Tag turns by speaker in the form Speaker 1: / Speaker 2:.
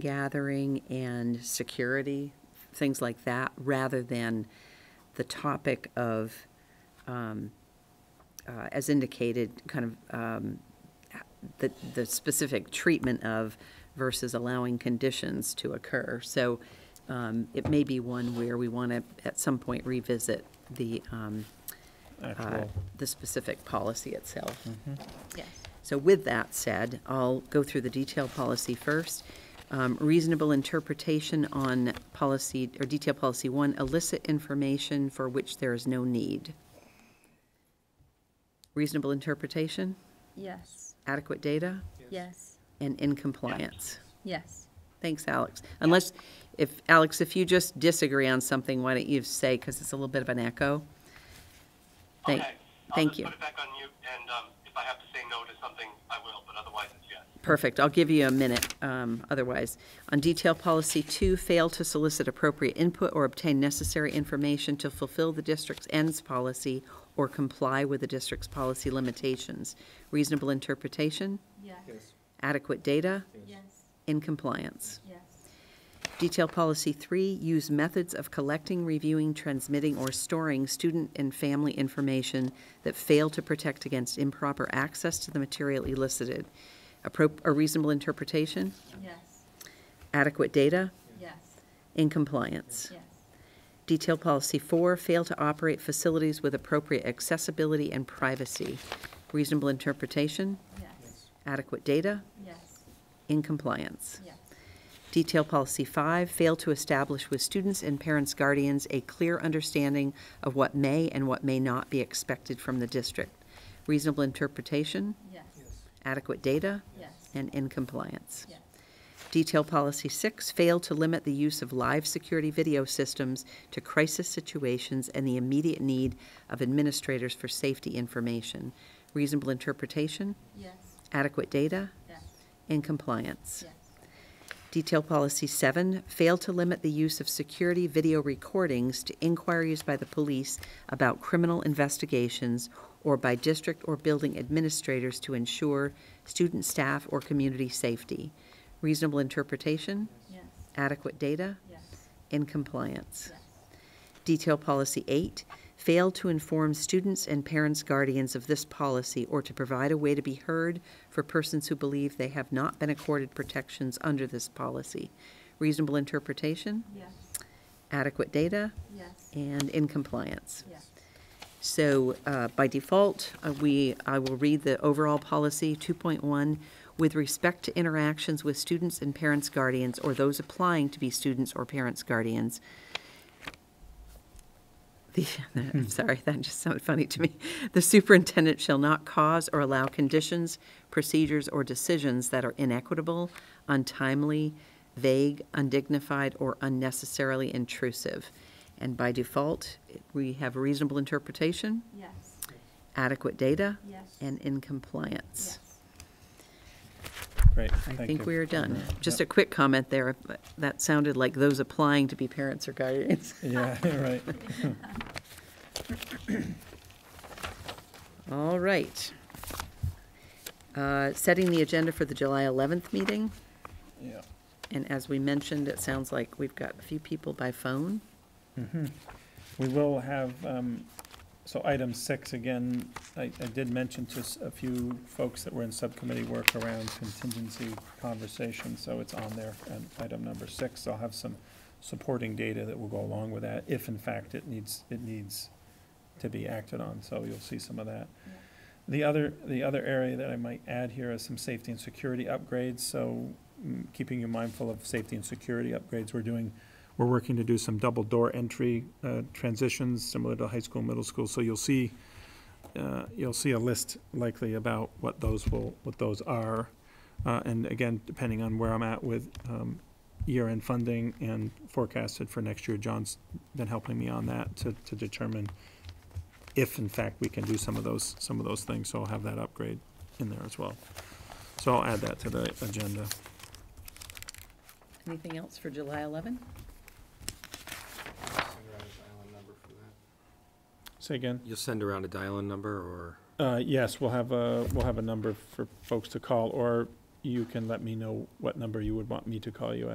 Speaker 1: gathering and security, things like that, rather than the topic of, um, uh, as indicated, kind of um, the, the specific treatment of versus allowing conditions to occur. So um, it may be one where we want to, at some point, revisit the, um, uh,
Speaker 2: Actual.
Speaker 1: the specific policy itself.
Speaker 3: Mm-hmm.
Speaker 4: Yes.
Speaker 1: So with that said, I'll go through the detailed policy first. Um, Reasonable interpretation on policy, or detail policy one, illicit information for which there is no need. Reasonable interpretation,
Speaker 4: Yes.
Speaker 1: adequate data,
Speaker 4: Yes.
Speaker 1: and in compliance.
Speaker 4: Yes.
Speaker 1: Thanks, Alex. Unless, if, Alex, if you just disagree on something, why don't you say, because it's a little bit of an echo? Thank-
Speaker 3: Okay.
Speaker 1: Thank you.
Speaker 3: I'll just put it back on mute, and um, if I have to say no to something, I will, but otherwise it's yes.
Speaker 1: Perfect. I'll give you a minute um, otherwise. On detail policy two, fail to solicit appropriate input or obtain necessary information to fulfill the district's ends policy or comply with the district's policy limitations. Reasonable interpretation,
Speaker 4: Yes.
Speaker 1: adequate data,
Speaker 4: Yes.
Speaker 1: in compliance.
Speaker 4: Yes.
Speaker 1: Detail policy three, use methods of collecting, reviewing, transmitting, or storing student and family information that fail to protect against improper access to the material elicited. Appro- A reasonable interpretation,
Speaker 4: Yes.
Speaker 1: adequate data,
Speaker 4: Yes.
Speaker 1: in compliance.
Speaker 4: Yes.
Speaker 1: Detail policy four, fail to operate facilities with appropriate accessibility and privacy. Reasonable interpretation,
Speaker 4: Yes.
Speaker 1: adequate data,
Speaker 4: Yes.
Speaker 1: in compliance.
Speaker 4: Yes.
Speaker 1: Detail policy five, fail to establish with students and parents, guardians, a clear understanding of what may and what may not be expected from the district. Reasonable interpretation,
Speaker 4: Yes.
Speaker 1: adequate data,
Speaker 4: Yes.
Speaker 1: and in compliance.
Speaker 4: Yes.
Speaker 1: Detail policy six, fail to limit the use of live security video systems to crisis situations and the immediate need of administrators for safety information. Reasonable interpretation,
Speaker 4: Yes.
Speaker 1: adequate data,
Speaker 4: Yes.
Speaker 1: and compliance.
Speaker 4: Yes.
Speaker 1: Detail policy seven, fail to limit the use of security video recordings to inquiries by the police about criminal investigations or by district or building administrators to ensure student, staff, or community safety. Reasonable interpretation,
Speaker 4: Yes.
Speaker 1: adequate data,
Speaker 4: Yes.
Speaker 1: in compliance.
Speaker 4: Yes.
Speaker 1: Detail policy eight, fail to inform students and parents, guardians of this policy or to provide a way to be heard for persons who believe they have not been accorded protections under this policy. Reasonable interpretation,
Speaker 4: Yes.
Speaker 1: adequate data,
Speaker 4: Yes.
Speaker 1: and in compliance.
Speaker 4: Yes.
Speaker 1: So uh, by default, uh, we, I will read the overall policy 2.1. With respect to interactions with students and parents, guardians, or those applying to be students or parents, guardians, the,
Speaker 2: Hmm.
Speaker 1: I'm sorry, that just sounded funny to me. The superintendent shall not cause or allow conditions, procedures, or decisions that are inequitable, untimely, vague, undignified, or unnecessarily intrusive. And by default, we have reasonable interpretation,
Speaker 4: Yes.
Speaker 1: adequate data,
Speaker 4: Yes.
Speaker 1: and in compliance.
Speaker 4: Yes.
Speaker 2: Great,
Speaker 1: I
Speaker 2: thank you.
Speaker 1: think we are done. Just a
Speaker 2: Yep.
Speaker 1: quick comment there. That sounded like those applying to be parents or guardians.
Speaker 2: Yeah, right.
Speaker 1: All right. Uh, Setting the agenda for the July 11th meeting,
Speaker 2: Yeah.
Speaker 1: and as we mentioned, it sounds like we've got a few people by phone.
Speaker 2: We will have, um, so item six, again, I, I did mention to s- a few folks that were in subcommittee work around contingency conversation, so it's on there, and item number six, I'll have some supporting data that will go along with that, if in fact it needs, it needs to be acted on, so you'll see some of that. The other, the other area that I might add here is some safety and security upgrades, so mm, keeping you mindful of safety and security upgrades, we're doing we're working to do some double door entry uh, transitions, similar to high school, middle school. So you'll see, uh, you'll see a list likely about what those will, what those are. Uh, And again, depending on where I'm at with um, year-end funding and forecasted for next year, John's been helping me on that to, to determine if in fact we can do some of those, some of those things. So I'll have that upgrade in there as well. So I'll add that to the agenda.
Speaker 1: Anything else for July 11th?
Speaker 2: Say again?
Speaker 5: You'll send around a dial-in number, or
Speaker 2: Uh, Yes, we'll have a, we'll have a number for folks to call, or you can let me know what number you would want me to call you at.